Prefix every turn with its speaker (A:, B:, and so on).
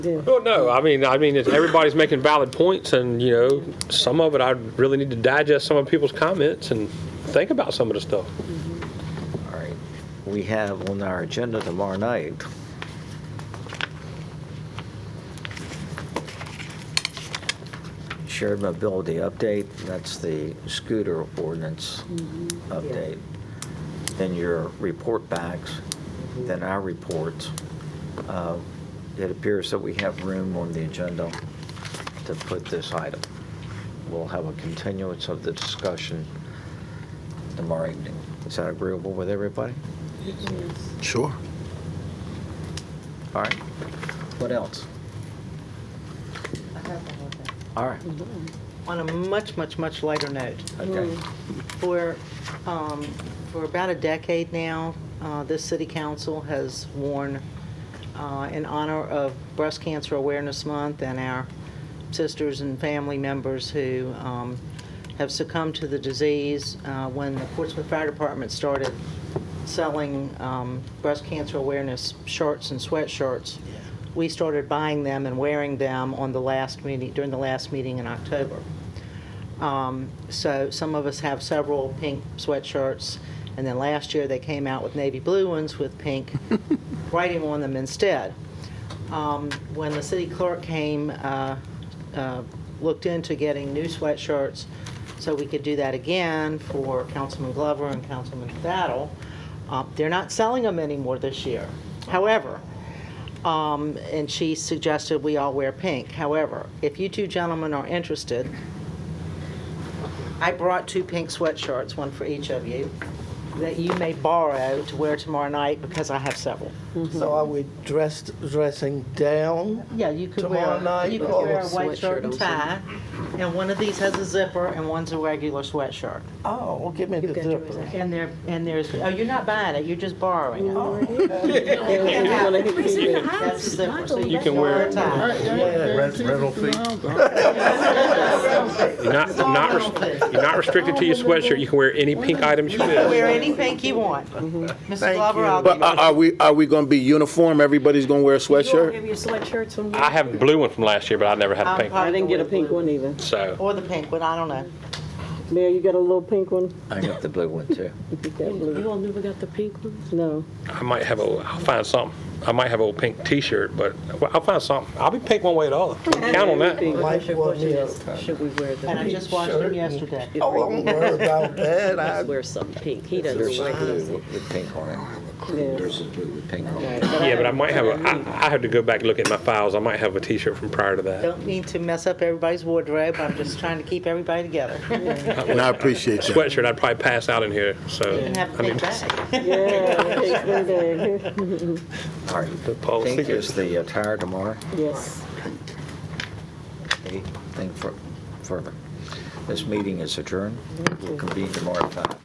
A: Well, Oh, no, I mean, I mean, it's, everybody's making valid points, and you know, some of it I really need to digest some of people's comments and think about some of the stuff.
B: All right. We have on our agenda tomorrow night. Shared mobility update, that's the scooter ordinance update. Then your report backs, then our reports. Uh, It appears that we have room on the agenda to put this item. We'll have a continuance of the discussion tomorrow evening. Is that agreeable with everybody?
C: Sure.
B: All right. What else? All right,
D: On a much, much, much lighter note,
B: okay.
D: for, um, for about a decade now, uh, this city council has worn, uh, in honor of Breast Cancer Awareness Month and our sisters and family members who um, have succumbed to the disease, uh, when the Portsmouth Fire Department started selling um, breast cancer awareness shirts and sweatshirts, we started buying them and wearing them on the last meeting, during the last meeting in October. Um, So some of us have several pink sweatshirts, and then last year they came out with navy blue ones with pink writing on them instead. Um, When the city clerk came, uh, uh, looked into getting new sweatshirts, so we could do that again for Councilman Glover and Councilman Battle, uh, they're not selling them anymore this year. However, um, and she suggested we all wear pink. However, if you two gentlemen are interested, I brought two pink sweatshirts, one for each of you, that you may borrow to wear tomorrow night because I have several.
C: So are we dressed, dressing down?
D: Yeah, you could
C: Tomorrow
D: wear,
C: night,
D: you could
C: oh.
D: wear a white
E: Sweatshirt
D: shirt and
E: also.
D: tie, and one of these has a zipper and one's a regular sweatshirt.
C: Oh, well, give me the zipper.
D: And there, and there's, oh, you're not buying it, you're just borrowing it. That's the zipper, so
A: You
D: you
A: can
D: can
A: wear
D: wear a
A: it.
D: tie.
C: Rental fee.
A: You're not, not res- you're not restricted to your sweatshirt. You can wear any pink items you wish.
D: Wear any pink you want. Mr.
C: Mm-hmm. Thank
D: Glover,
C: you.
D: I'll give
A: uh,
F: But are, are we, are we gonna be uniform? Everybody's gonna wear a
E: You all
F: sweatshirt?
E: have your sweatshirts from
A: I have a blue one from last year, but I never had a
D: I'm
A: pink one.
E: I
D: probably
E: didn't get a
D: wear
E: pink
D: blue.
E: one either.
A: So
D: Or the pink one, I don't know.
E: Mayor, you got a little pink one?
B: I got the blue one too.
E: You got blue.
G: You all never got the pink ones?
E: No.
A: I might have a, I'll find something. I might have a old pink T-shirt, but well, I'll find something. I'll be pink one way or the other. Count on that.
C: Wife wore me a-
G: Should we wear
D: And I
G: the,
D: just watched
C: Shirt
D: them
C: and-
D: yesterday.
C: Oh, don't worry about that. I-
G: wear some pink? He
B: There's
G: doesn't
B: a
G: like
B: blue with- with pink on it.
E: Yeah.
B: There's a blue with pink on it.
A: Yeah, but I might have a. I, I have to go back and look at my files. I might have a T-shirt from prior to that.
D: Don't mean to mess up everybody's wardrobe, I'm just trying to keep everybody together.
F: And I appreciate that.
A: Sweatshirt, I'd probably pass out in here. So
D: And have a
A: I need
D: pink bag.
E: Yeah, pink one day.
B: All right,
A: The policy
B: pink is the attire tomorrow.
E: Yes.
B: Anything fur- further? This meeting is adjourned. We'll convene tomorrow at five.